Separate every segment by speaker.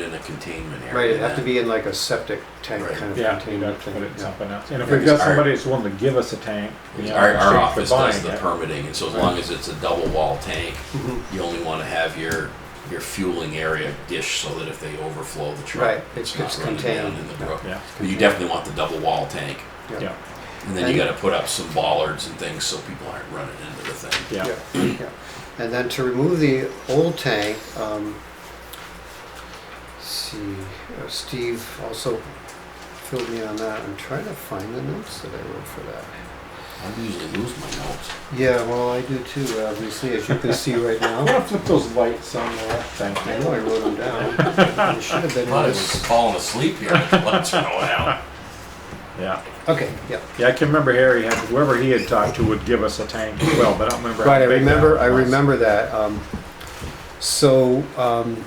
Speaker 1: in a containment area.
Speaker 2: Right, it'd have to
Speaker 1: then.
Speaker 2: be in like a septic tank
Speaker 1: Right.
Speaker 2: kind of
Speaker 3: Yeah, you
Speaker 2: containment
Speaker 3: got to put it
Speaker 2: thing.
Speaker 3: in
Speaker 2: yeah.
Speaker 3: something else. And if
Speaker 1: Yeah,
Speaker 3: we've got
Speaker 1: because our-
Speaker 3: somebody that's willing to give us a tank, you know,
Speaker 1: Our,
Speaker 3: in
Speaker 1: our
Speaker 3: exchange for
Speaker 1: office does
Speaker 3: buying
Speaker 1: the
Speaker 3: it,
Speaker 1: permitting, and so as long as it's a double wall tank,
Speaker 2: Mhm.
Speaker 1: you only want to have your, your fueling area dish so that if they overflow the
Speaker 2: Right,
Speaker 1: truck,
Speaker 2: it's-
Speaker 1: it's not
Speaker 2: it's
Speaker 1: running down
Speaker 2: contained.
Speaker 1: in the brook.
Speaker 3: Yeah,
Speaker 1: But you definitely want the double wall tank,
Speaker 3: yeah,
Speaker 1: and then you
Speaker 2: And-
Speaker 1: gotta put up some bollards and things so people aren't running into the thing.
Speaker 3: yeah.
Speaker 2: yeah. And then to remove the old tank, um, let's see, uh, Steve also filled me on that. I'm trying to find the notes that I wrote for that.
Speaker 1: I usually lose my notes.
Speaker 2: Yeah, well, I do too, obviously, as you can see right
Speaker 3: I'm gonna
Speaker 2: now.
Speaker 3: flip those lights on there. Thank
Speaker 2: I know
Speaker 3: you.
Speaker 2: I wrote them down. They should have been
Speaker 1: I
Speaker 2: in
Speaker 1: thought I was
Speaker 2: this.
Speaker 1: falling asleep here, the lights are going out.
Speaker 3: Yeah,
Speaker 2: Okay, yeah.
Speaker 3: yeah. I can remember Harry had whoever he had talked to would give us a tank as well, but I don't remember. how
Speaker 2: Right, I
Speaker 3: big that
Speaker 2: remember, I
Speaker 3: was.
Speaker 2: remember that. Um, so, um,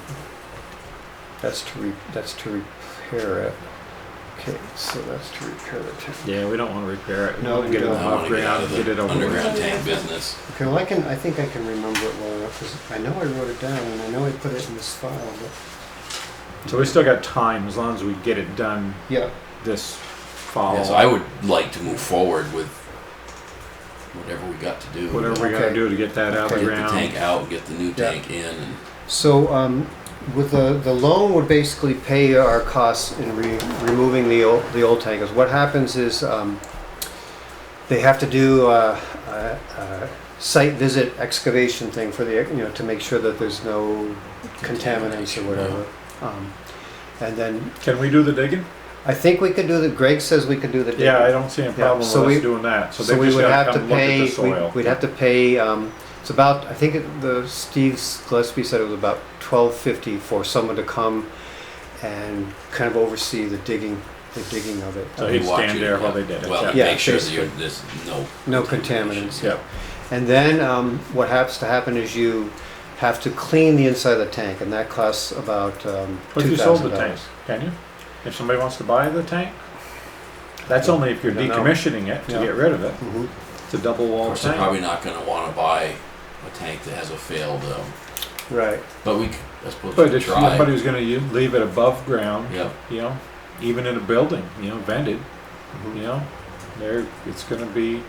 Speaker 2: that's to, re- that's to repair it. Okay, so that's to repair the tank.
Speaker 3: Yeah, we don't want to repair it. We
Speaker 2: No,
Speaker 3: wanna
Speaker 2: we
Speaker 3: get it
Speaker 2: don't.
Speaker 1: I wanna get out
Speaker 3: off
Speaker 1: of
Speaker 3: get it
Speaker 1: the
Speaker 3: over with.
Speaker 1: underground tank business.
Speaker 2: Okay, well, I can, I think I can remember it well enough, because I know I wrote it down, and I know I put it in this file, but,
Speaker 3: So we still got time as long as we get it done
Speaker 2: yeah.
Speaker 3: this fall.
Speaker 1: Yeah, so I would like to move forward with whatever we got to do.
Speaker 3: Whatever we
Speaker 2: Okay.
Speaker 3: gotta do to get that out of
Speaker 1: Get
Speaker 3: the
Speaker 1: the
Speaker 3: ground.
Speaker 1: tank out, get the new
Speaker 2: Yeah.
Speaker 1: tank in, and
Speaker 2: So, um, with the, the loan would basically pay our costs in re- removing the old, the old tankers. What happens is, um, they have to do a, a, a site visit excavation thing for the, you know, to make sure that there's no contaminants or
Speaker 1: Contamination,
Speaker 2: whatever. Um, and then,
Speaker 3: Can we do the digging?
Speaker 2: I think we could do the, Greg says we could do the.
Speaker 3: Yeah, I don't see a problem
Speaker 2: so
Speaker 3: with
Speaker 2: we-
Speaker 3: us doing that. So
Speaker 2: So
Speaker 3: they
Speaker 2: we
Speaker 3: just
Speaker 2: would
Speaker 3: gotta
Speaker 2: have to
Speaker 3: come look at
Speaker 2: pay,
Speaker 3: the soil.
Speaker 2: we'd- we'd have to pay, um, it's about, I think it- the, Steve Gillespie said it was about twelve fifty for someone to come and kind of oversee the digging, the digging of it.
Speaker 3: So
Speaker 1: we
Speaker 3: he'd
Speaker 1: walk
Speaker 3: stand
Speaker 1: you-
Speaker 3: there while they did it,
Speaker 1: Well,
Speaker 3: yeah.
Speaker 1: you
Speaker 2: Yeah,
Speaker 1: make sure that
Speaker 2: basically.
Speaker 1: you're, there's no.
Speaker 2: No contaminants.
Speaker 3: Yeah,
Speaker 2: And then, um, what has to happen is you have to clean the inside of the tank and that costs about, um,
Speaker 3: but
Speaker 2: two
Speaker 3: you sold
Speaker 2: thousand
Speaker 3: the tank,
Speaker 2: dollars.
Speaker 3: can you? If somebody wants to buy the tank? That's only if you're
Speaker 2: I don't know.
Speaker 3: decommissioning it to
Speaker 2: Yeah.
Speaker 3: get rid of it.
Speaker 2: Mhm.
Speaker 3: It's a double
Speaker 1: Of
Speaker 3: wall
Speaker 1: course, they're
Speaker 3: tank.
Speaker 1: probably not gonna wanna buy a tank that has a failed, um,
Speaker 2: Right,
Speaker 1: but we, c- I suppose we
Speaker 3: But
Speaker 1: could
Speaker 3: if
Speaker 1: try.
Speaker 3: somebody was gonna u- leave it above ground,
Speaker 1: Yep,
Speaker 3: you know, even in a building, you know, vented,
Speaker 2: Mhm.
Speaker 3: you know, there, it's gonna be,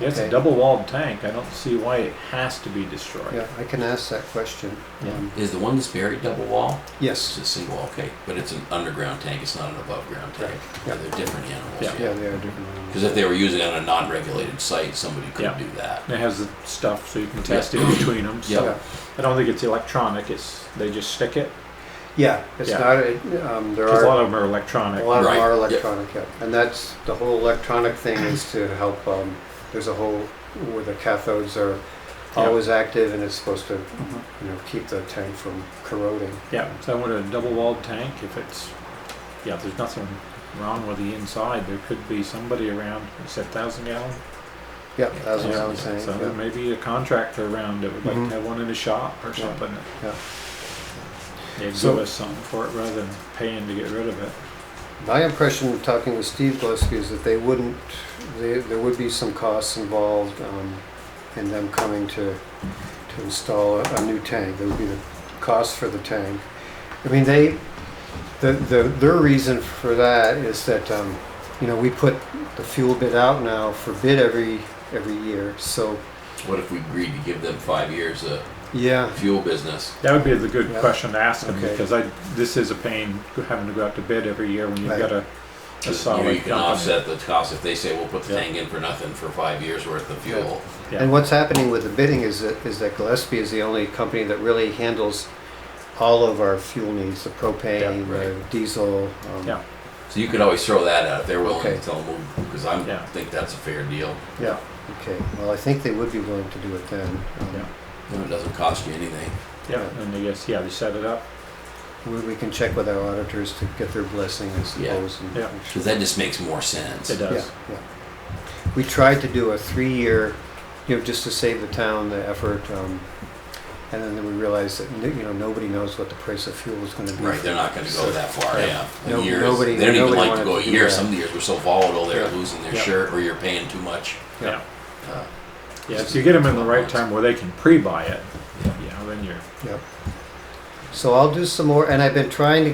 Speaker 3: yeah, it's a
Speaker 2: Okay.
Speaker 3: double walled tank. I don't see why it has to be destroyed.
Speaker 2: yeah, I can ask that question.
Speaker 3: Yeah.
Speaker 2: Um,
Speaker 1: is the one that's buried double wall? It's
Speaker 2: Yes,
Speaker 1: a single wall, okay, but it's an underground tank, it's not an above ground tank.
Speaker 2: Yeah.
Speaker 1: Yeah, They're different animals,
Speaker 3: Yeah.
Speaker 2: yeah,
Speaker 1: yeah.
Speaker 2: they are different.
Speaker 1: Cause if they were using it on a non-regulated site, somebody could
Speaker 3: Yeah.
Speaker 1: do that.
Speaker 3: And It has the stuff so you can test it between them,
Speaker 1: Yeah.
Speaker 3: so. I don't think it's electronic. It's they just stick it.
Speaker 2: Yeah, it's
Speaker 3: Yeah.
Speaker 2: not, it- um, there
Speaker 3: 'Cause
Speaker 2: are.
Speaker 3: a lot of them are
Speaker 2: A
Speaker 3: electronic.
Speaker 2: lot of them
Speaker 1: Right,
Speaker 2: are
Speaker 1: yeah.
Speaker 2: electronic, yeah. And that's, the whole electronic thing is to help, um, there's a whole, where the cathodes are
Speaker 3: Yeah. Mm-hmm.
Speaker 2: always active and it's supposed to, you know, keep the tank from corroding.
Speaker 3: Yeah. So I want a double walled tank. If it's yeah, there's nothing wrong with the inside. There could be somebody around. It's a thousand gallon.
Speaker 2: Yeah, that's what
Speaker 3: Yeah.
Speaker 2: I'm saying,
Speaker 3: So there
Speaker 2: yeah.
Speaker 3: may be a contractor around that would like
Speaker 2: Mhm.
Speaker 3: to have one in a shop or
Speaker 2: Yeah.
Speaker 3: something.
Speaker 2: Yeah.
Speaker 3: They give
Speaker 2: So-
Speaker 3: us something for it rather than paying to get rid of it.
Speaker 2: My impression, talking with Steve Gillespie, is that they wouldn't, they, there would be some costs involved, um, in them coming to, to install a, a new tank. There would be the cost for the tank. I mean, they, the, the, their reason for that is that, um, you know, we put the fuel bid out now for bid every, every year, so,
Speaker 1: What if we agreed to give them five years uh, of
Speaker 2: yeah,
Speaker 1: fuel business?
Speaker 3: That would be the good
Speaker 2: Yeah.
Speaker 3: question to ask them
Speaker 2: Okay.
Speaker 3: because I this is a pain having to go out to bid every year when you've
Speaker 2: Right.
Speaker 3: got a, a
Speaker 1: Cause you
Speaker 3: solid
Speaker 1: know, you can
Speaker 3: company.
Speaker 1: offset the cost, if they say, we'll put the
Speaker 3: Yeah.
Speaker 1: tank in for nothing for five years worth of fuel.
Speaker 3: Yeah.
Speaker 2: And what's happening with the bidding is that, is that Gillespie is the only company that really handles all of our fuel needs, the propane,
Speaker 1: Yeah,
Speaker 2: the
Speaker 1: right.
Speaker 2: diesel. um,
Speaker 3: Yeah.
Speaker 1: So you could always throw that out if they're willing
Speaker 2: Okay.
Speaker 1: to tell them, because I
Speaker 3: Yeah.
Speaker 1: think that's a fair deal.
Speaker 2: Yeah, okay. Well, I think they would be willing to do it then. Um,
Speaker 3: Yeah.
Speaker 1: And it doesn't cost you anything.
Speaker 3: Yeah,
Speaker 2: Yeah.
Speaker 3: and I guess, yeah, they set it up.
Speaker 2: We, we can check with our auditors to get their blessing, I suppose. and
Speaker 3: Yeah.
Speaker 2: make sure.
Speaker 1: Because that just makes more sense.
Speaker 3: It
Speaker 2: Yeah,
Speaker 3: does.
Speaker 2: yeah. We tried to do a three-year, you know, just to save the town the effort, um, and then we realized that, you know, nobody knows what the price of fuel is gonna be.
Speaker 1: Right, they're not going to go that far.
Speaker 2: Yeah.
Speaker 1: Yeah,
Speaker 2: No-
Speaker 1: years,
Speaker 2: nobody-
Speaker 1: they don't even
Speaker 2: nobody
Speaker 1: like to
Speaker 2: wanted
Speaker 1: go a
Speaker 2: to do
Speaker 1: year.
Speaker 2: that.
Speaker 1: Some years were so volatile, they're
Speaker 2: Yeah.
Speaker 1: losing their
Speaker 3: Yeah.
Speaker 1: shirt, or you're paying too much.
Speaker 2: Yeah.
Speaker 3: Yeah.
Speaker 1: Uh,
Speaker 3: Yeah, if you get them in the right time where they can pre-buy it,
Speaker 1: Yeah.
Speaker 3: you know, then you're
Speaker 2: Yep. So I'll do some more, and I've been trying to